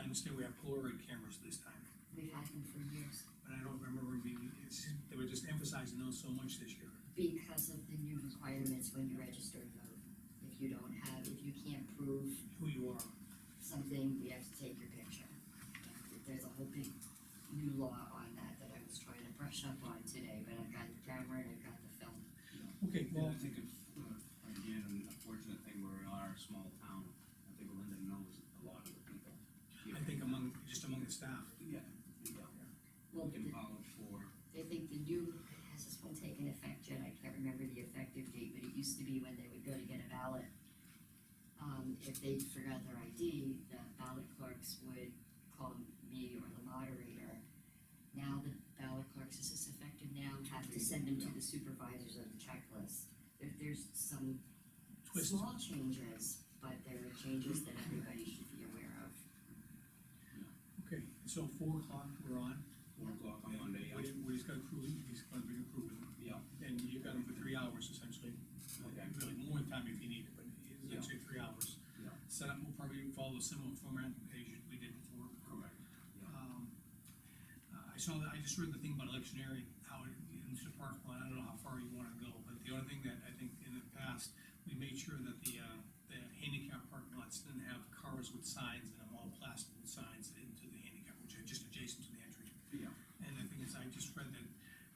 understand we have Polaroid cameras this time, We've had them for years but I don't remember them being, it's, they were just emphasizing those so much this year. because of the new requirements when you register to vote. If you don't have, if you can't prove Who you are, something, we have to take your picture. There's a whole big new law on that that I was trying to brush up on today, but I've got the camera and I've got the film. okay, And well, I think it's, uh, again, an unfortunate thing, where we are a small town, I think Linda knows a lot of the people. here. I think among, just among the staff. Yeah, yeah, Well, we can the- vouch for, they think the new, has this one taken effect yet? I can't remember the effective date, but it used to be when they would go to get a ballot. Um, if they forgot their ID, the ballot clerks would call me or the moderator. Now the ballot clerks, is this effective now, have to send them to the supervisors of the checklist. If there's some Twist. small changes, but there are changes that everybody should be aware of. Okay, so four o'clock, we're on. four o'clock on Monday, We, we just got a crew, he's gonna bring a crew with him, yeah, and you've got him for three hours essentially. okay, Really, more time if you need it, but it's actually three hours. Yeah. Setup will probably follow a similar format as you- we did before. correct, Um, uh, I saw that, I just read the thing about electioneering, how it, in the park one, I don't know how far you wanna go, but the only thing that I think in the past, we made sure that the, uh, the handicap parking lots didn't have cars with signs and all plastic with signs into the handicap, which are just adjacent to the entry. yeah, And the thing is, I just read that,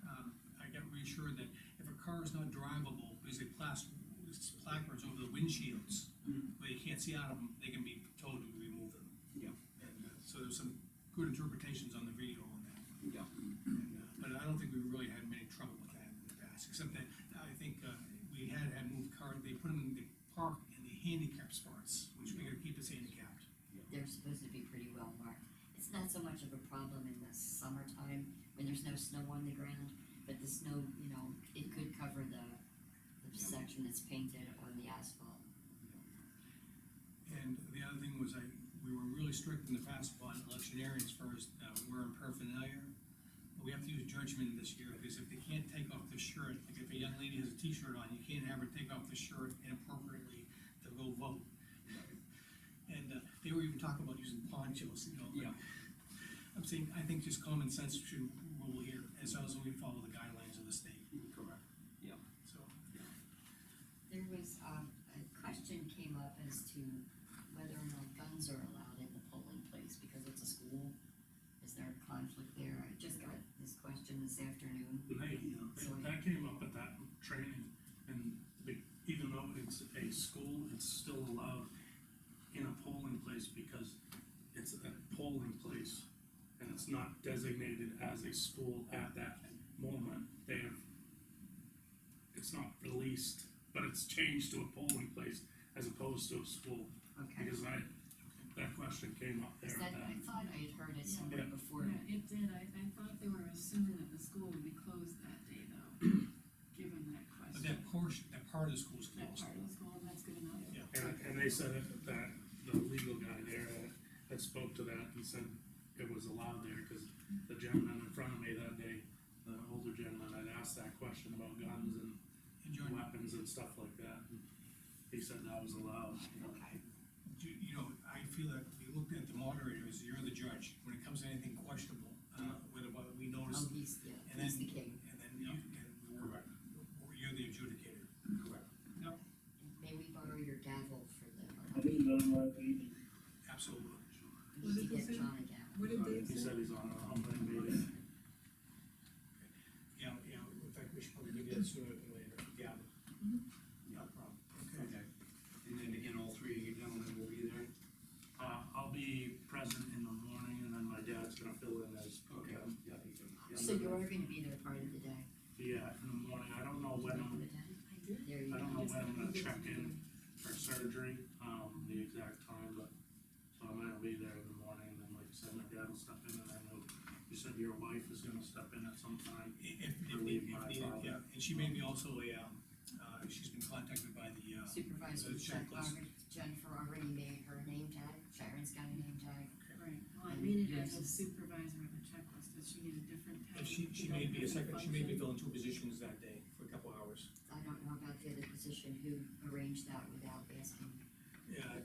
um, I got reassured that if a car is not drivable, there's a plastic, placards over the windshields, Mhm. where you can't see out of them, they can be told to remove them. yeah, And uh, so there's some good interpretations on the video on that, yeah, And, uh, but I don't think we really had many trouble with that in the past, except that I think uh, we had had moved car, they put them in the park in the handicap spots, which we gotta keep us handicapped. they're supposed to be pretty well marked. It's not so much of a problem in the summertime when there's no snow on the ground, but the snow, you know, it could cover the, the Yeah. section that's painted on the asphalt. And the other thing was I, we were really strict in the past upon electioneering as far as uh, wearing paraphernalia. But we have to use judgment this year, because if they can't take off the shirt, like if a young lady has a T-shirt on, you can't have her take off the shirt inappropriately to go vote. And uh, they were even talking about using ponchos, you know. yeah, I'm saying, I think just common sense should rule here, as long as we follow the guidelines of the state, correct, yeah, so. There was, um, a question came up as to whether or not guns are allowed in the polling place because it's a school. Is there a conflict there? I just got this question this afternoon. Hey, Sorry. that came up at that training, and be- even though it's a school, it's still allowed in a polling place because it's a polling place, and it's not designated as a school at that moment. They have, it's not released, but it's changed to a polling place as opposed to a school, Okay. because I, that question came up there Is at that, I that. thought I had heard it somewhere Yeah. before. Yeah, it did, I, I thought they were assuming that the school would be closed that day though, given that But question. that portion, that part of the school's That closed. part of the school, that's good enough. Yeah. And, and they said that, that the legal guy there that, that spoke to that and said it was allowed there, cause the gentleman in front of me that day, the older gentleman, had asked that question about guns and And John, weapons and stuff like that. and He said that was allowed. Okay. Do, you know, I feel that we looked at the moderator as you're the judge, when it comes to anything questionable, uh, whether what we Oh, notice, he's, yeah, and he's then- the king. and then you, and we're, or you're the adjudicator. correct, May we borrow your gavel for the, I didn't know my opinion. Absolutely. we need uh, to get What did they say? John a gavel. What did Uh, He they say? said he's on a humbling meeting. Yeah, yeah, in fact, we should probably do that sooner than later, yeah. No problem. Okay. okay. And then again, all three of you gentlemen will be there, Uh, I'll be present in the morning and then my dad's gonna fill in as. okay, yeah, you can. yeah. So you are gonna be there part of the day. Yeah, in the morning. I don't know when I'm I did. There you go. I don't know when I'm gonna check in for surgery, um, the exact time, but, so I'm gonna be there in the morning, and then like I said, my dad will step in, and I know you said your wife is gonna step in at some time. If, if, if needed, yeah, and she may be also a, um, uh, she's been contacted by the, uh, Supervisor The Jen checklist. already, Jennifer already made her name tag, Sharon's got a name tag. Right, well, I made it as a supervisor of the checklist, does she need a different and tag? she, she may be a second, she may be filling two positions that day for a couple hours. I don't know about the other position who arranged that without asking. Yeah,